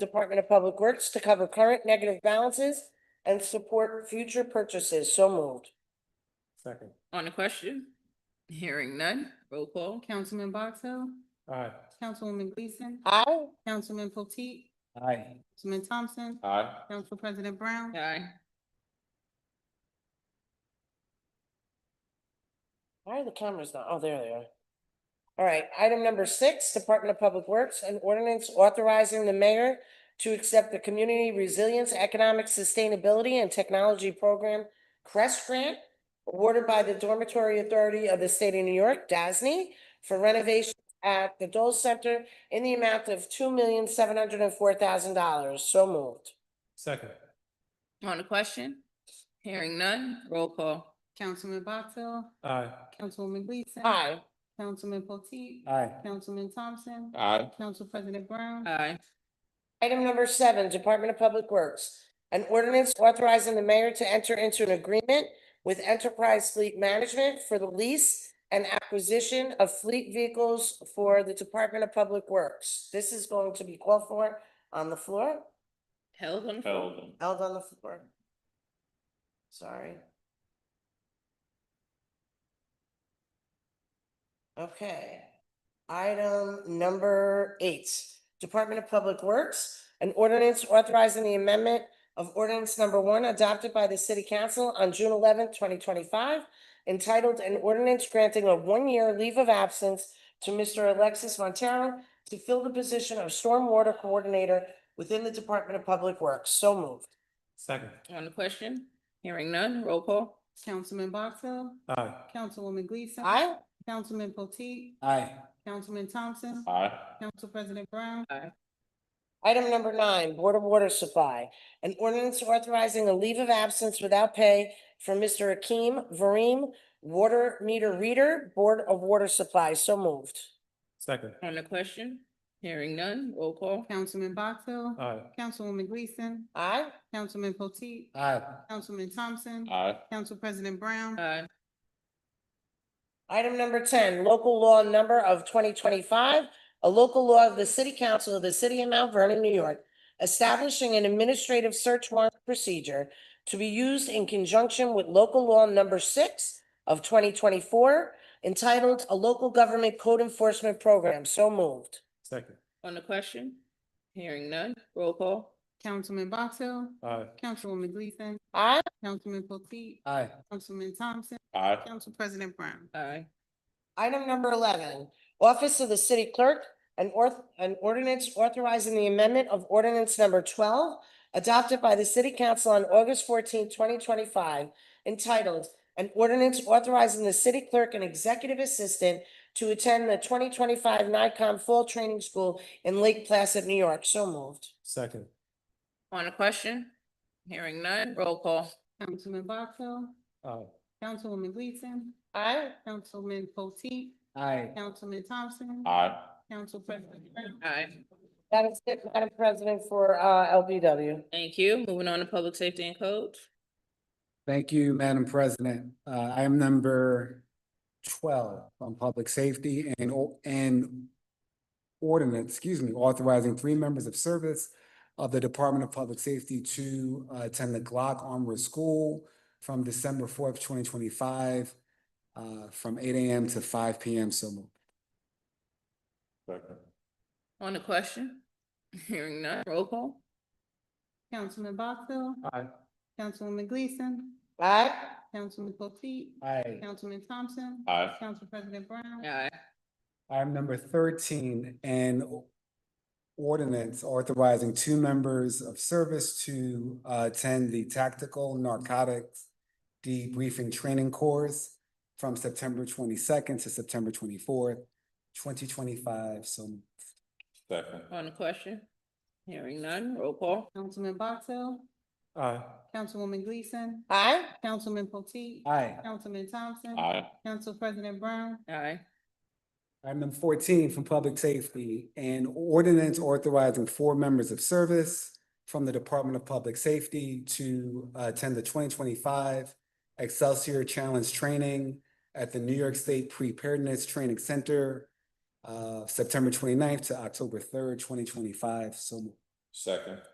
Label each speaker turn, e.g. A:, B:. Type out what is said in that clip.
A: Department of Public Works to cover current negative balances and support future purchases. So moved.
B: Second.
C: On the question? Hearing none, roll call.
D: Councilman Box Hill,
B: Aye.
D: Councilwoman Gleason,
A: Aye.
D: Councilman Potteet,
B: Aye.
D: Councilman Thompson,
B: Aye.
D: Council President Brown,
C: Aye.
A: Why are the cameras not? Oh, there they are. All right, item number six, Department of Public Works, an ordinance authorizing the mayor to accept the Community Resilience, Economic Sustainability and Technology Program CREST Grant awarded by the Dormitory Authority of the State of New York, DASNY, for renovation at the Dole Center in the amount of two million, seven hundred and four thousand dollars. So moved.
B: Second.
C: On the question? Hearing none, roll call.
D: Councilman Box Hill,
B: Aye.
D: Councilwoman Gleason,
A: Aye.
D: Councilman Potteet,
B: Aye.
D: Councilman Thompson,
B: Aye.
D: Council President Brown,
C: Aye.
A: Item number seven, Department of Public Works. An ordinance authorizing the mayor to enter into an agreement with Enterprise Fleet Management for the lease and acquisition of fleet vehicles for the Department of Public Works. This is going to be called for on the floor,
C: Held on the floor.
E: Held.
A: held on the floor. Sorry. Okay. Item number eight, Department of Public Works, an ordinance authorizing the amendment of ordinance number one adopted by the city council on June eleventh, twenty twenty-five, entitled an ordinance granting a one-year leave of absence to Mr. Alexis Montero to fill the position of stormwater coordinator within the Department of Public Works. So moved.
B: Second.
C: On the question? Hearing none, roll call.
D: Councilman Box Hill,
B: Aye.
D: Councilwoman Gleason,
A: Aye.
D: Councilman Potteet,
B: Aye.
D: Councilman Thompson,
E: Aye.
D: Council President Brown,
C: Aye.
A: Item number nine, Board of Water Supply. An ordinance authorizing a leave of absence without pay for Mr. Akeem Vareem, water meter reader, Board of Water Supply. So moved.
B: Second.
C: On the question? Hearing none, roll call.
D: Councilman Box Hill,
B: Aye.
D: Councilwoman Gleason,
A: Aye.
D: Councilman Potteet,
B: Aye.
D: Councilman Thompson,
E: Aye.
D: Council President Brown,
C: Aye.
A: Item number ten, local law number of twenty twenty-five, a local law of the City Council of the City of Mount Vernon, New York, establishing an administrative search warrant procedure to be used in conjunction with local law number six of twenty twenty-four, entitled A Local Government Code Enforcement Program. So moved.
B: Second.
C: On the question? Hearing none, roll call.
D: Councilman Box Hill,
B: Aye.
D: Councilwoman Gleason,
A: Aye.
D: Councilman Potteet,
B: Aye.
D: Councilman Thompson,
E: Aye.
D: Council President Brown,
C: Aye.
A: Item number eleven, Office of the City Clerk, an orth, an ordinance authorizing the amendment of ordinance number twelve adopted by the City Council on August 14, twenty twenty-five, entitled, an ordinance authorizing the city clerk and executive assistant to attend the twenty twenty-five NICOM Fall Training School in Lake Placid, New York. So moved.
B: Second.
C: On the question? Hearing none, roll call.
D: Councilman Box Hill,
B: Aye.
D: Councilwoman Gleason,
A: Aye.
D: Councilman Potteet,
B: Aye.
D: Councilman Thompson,
E: Aye.
D: Council President Brown,
C: Aye.
A: That is it, Madam President, for, uh, LBW.
C: Thank you. Moving on to public safety and codes.
F: Thank you, Madam President. Uh, I am number twelve on public safety and, o- and ordinance, excuse me, authorizing three members of service of the Department of Public Safety to uh, attend the Glock Armored School from December fourth, twenty twenty-five, uh, from eight AM to five PM, so moved.
E: Second.
C: On the question? Hearing none, roll call.
D: Councilman Box Hill,
B: Aye.
D: Councilwoman Gleason,
A: Aye.
D: Councilman Potteet,
F: Aye.
D: Councilman Thompson,
E: Aye.
D: Council President Brown,
C: Aye.
F: Item number thirteen, an o- ordinance authorizing two members of service to uh, attend the Tactical Narcotics Debriefing Training Course from September twenty-second to September twenty-fourth, twenty twenty-five, so moved.
E: Second.
C: On the question? Hearing none, roll call.
D: Councilman Box Hill,
B: Aye.
D: Councilwoman Gleason,
A: Aye.
D: Councilman Potteet,
F: Aye.
D: Councilman Thompson,
E: Aye.
D: Council President Brown,
C: Aye.
F: Item number fourteen from Public Safety, an ordinance authorizing four members of service from the Department of Public Safety to uh, attend the twenty twenty-five Excelsior Challenge Training at the New York State Preparedness Training Center, uh, September 29th to October third, twenty twenty-five, so moved.
B: second.